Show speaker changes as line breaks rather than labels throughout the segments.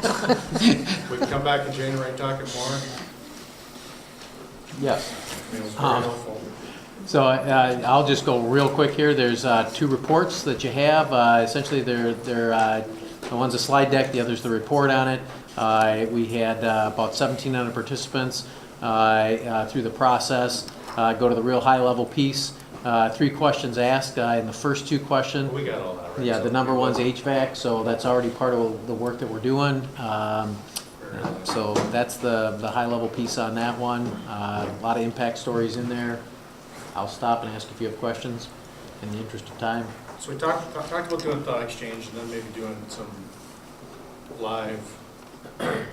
We can come back in January and talk it more.
Yes.
I mean, It was very
Um,
helpful.
So uh, I'll just go real quick here. There's uh, two reports that you have. Uh, Essentially, they're, they're, uh, the one's a slide deck, the other's the report on it. Uh, We had uh, about 1,700 participants uh, uh, through the process. Uh, Go to the real high-level piece. Uh, Three questions asked. Uh, In the first two questions,
We got all that, right?
Yeah, the
So
number
we-
one's HVAC, so that's already part of the work that we're doing. Um, uh, So that's the, the high-level piece on that one. Uh, A lot of impact stories in there. I'll stop and ask if you have questions in the interest of time.
So we talked, talked about doing thought exchange and then maybe doing some live listening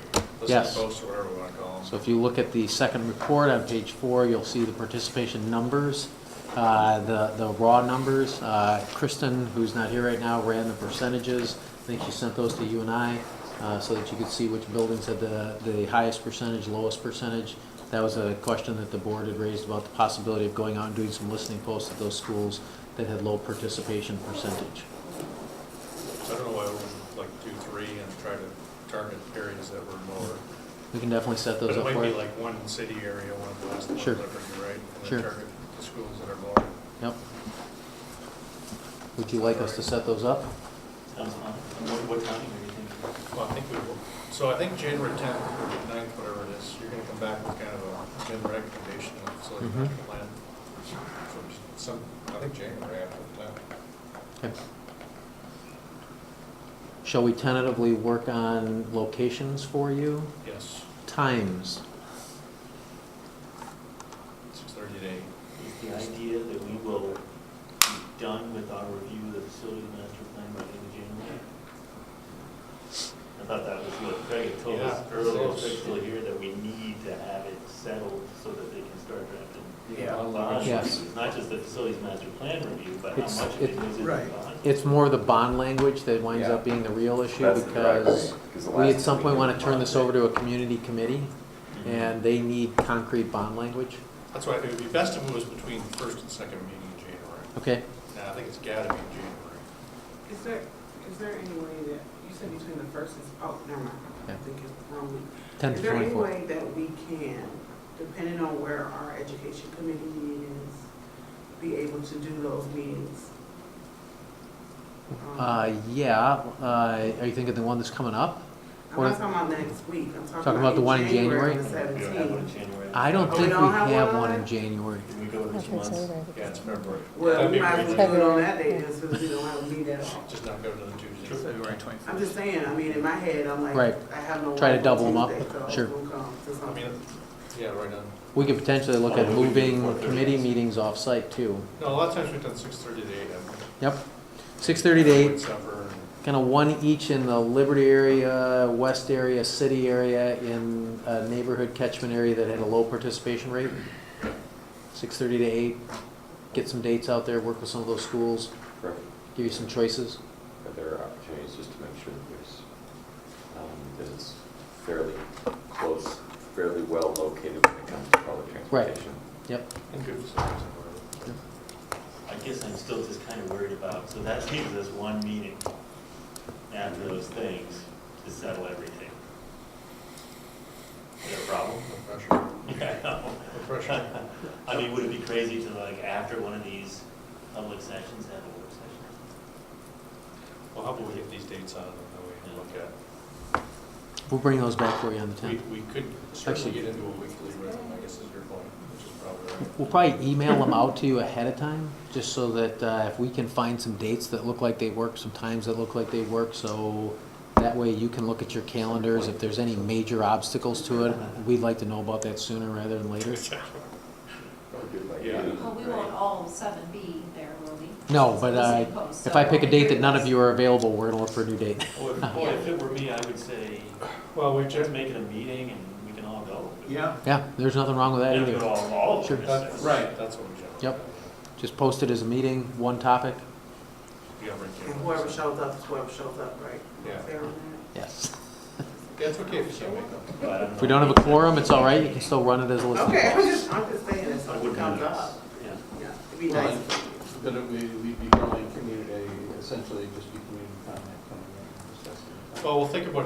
Yes.
posts or whatever we want to call
So if you look at the second report on page four, you'll see the participation numbers, uh, the, the raw numbers. Uh, Kristen, who's not here right now, ran the percentages. I think she sent those to you and I, uh, so that you could see which buildings had the, the highest percentage, lowest percentage. That was a question that the board had raised about the possibility of going out and doing some listening posts at those schools that had low participation percentage.
them. So I don't know why we wouldn't like do three and try to target areas that were more.
We can definitely set
But
those up
it might
for
be
you.
like one city area, one west, one
Sure.
liberty, right? And
Sure.
then target the schools that are more.
Yep. Would you like us to set those up?
Sounds fun. And what, what time are you thinking?
Well, I think we will, so I think January tenth, or ninth, whatever it is, you're gonna come back with kind of a agenda recommendation, so you can
Mhm.
plan. for Some, I think January after that.
Okay. Shall we tentatively work on locations for you?
Yes,
Times?
six thirty to eight.
Is the idea that we will be done with our review of the facility master plan by the end of January? I thought that was what Craig had told us
Yeah.
earlier, if Craig's still here, that we need to have it settled so that they can start drafting.
Yeah.
bonds.
Yes.
It's not just the facilities master plan review, but how
It's-
much of it
it-
is in the
Right.
bond.
It's more the bond language that winds
Yeah.
up being the real issue
That's the driver,
because
'cause the
we
last
at some
time
point
we
want
did
to turn
bond
this
day-
over to a community committee and they need concrete bond language.
That's why I think it'd be best if it was between first and second meeting in January.
Okay,
Now, I think it's gotta be in January.
Is there, is there any way that, you said between the first and, oh, never mind,
Yeah.
I think it's the wrong week.
10 to
Is there any
24.
way that we can, depending on where our education committee meetings, be able to do those meetings? Um,
Uh, yeah, uh, are you thinking the one that's coming up?
I'm not talking about next week, I'm
Talking about
talking about
the one in
in January, on the
January?
We don't have one in
seventeenth.
January.
I don't
Oh,
think we
we don't have
have
one
one in
on?
January.
Can we go to which ones?
Yeah, it's February.
Well,
That'd
we
be
might as
great.
well do it on that day, just because we don't have a meet at all.
Just not go to the Tuesday.
February 25th.
I'm just saying, I mean, in my head, I'm
Right.
like, I have no.
Try to
work on
double 'em up.
Tuesday, so
Sure.
we'll come to
I
something.
mean, yeah, right on.
We could potentially look at
Oh, we could do
moving
4:30.
committee meetings off-site too.
No, a lot of times we've done six thirty to eight. haven't we?
Yep. 6:30 to 8.
Avoid supper and-
kind of one each in the Liberty area, West area, city area, in a neighborhood catchment area that had a low participation rate. Six thirty to eight, get some dates out there, work with some of those schools,
Correct.
give you some choices.
Are there opportunities just to make sure that there's, um, that it's fairly close, fairly well located when it comes to public
Right.
transportation?
Yep,
and good facilities and whatever.
I guess I'm still just kind of worried about, so that leaves us one meeting after those things to settle everything. Is that a problem?
No pressure.
Yeah, I know.
No pressure.
I mean, would it be crazy to like, after one of these public sessions, have a work session?
Well, how about we get these dates on and then we can look at,
we'll bring those back for you on the tenth.
we, we could certainly get into a weekly rhythm, I guess is your point, which is probably right.
We'll probably email them out to you ahead of time, just so that uh, if we can find some dates that look like they work, some times that look like they work, so that way you can look at your calendars. If there's any major obstacles to it, we'd like to know about that sooner rather than later.
Probably do it by
Yeah.
noon,
Well, Oh, we
right?
won't all seven be there, will we?
No, but I,
Because
if I pick a date that none of
it's
you are available, we're gonna look for a new date.
Or, if- or if it were me, I would say,
Well, we
just
just,
make it a meeting and we can all go.
Yeah,
Yeah, there's nothing wrong with that
And
either.
all, all of
Sure.
us.
right, that's what we generally.
Yep. Just post it as a meeting, one topic.
You gotta bring
And whoever
cameras.
shows up is whoever shows up, right?
Yeah.
Fair on
Yes.
Yeah, it's okay if you can't make them.
But I
If we don't have a quorum, it's all right, you can still run it as a
that.
list.
Okay, I'm just, I'm just saying, if
I
something
wouldn't
comes
know.
up,
Yeah.
yeah, it'd be nice.
but it would, we'd be calling community, essentially just be community comment coming in. discussing.
Well, we'll think about